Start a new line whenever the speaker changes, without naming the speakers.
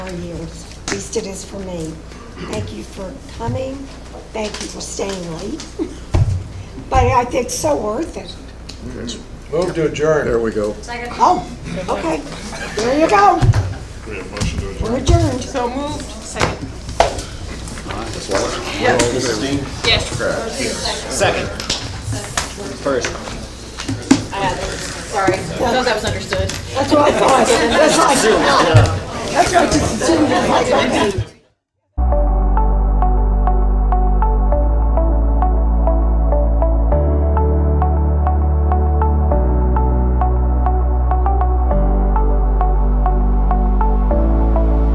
four years. At least it is for me. Thank you for coming. Thank you for staying late. But I think it's so worth it.
Move to adjourn.
There we go.
Oh, okay. There you go.
We have motion to adjourn.
We're adjourned.
So moved. Second. Yes. Second. First. Sorry, I thought that was understood.
That's what I thought. That's what I thought. That's what I just assumed. Like,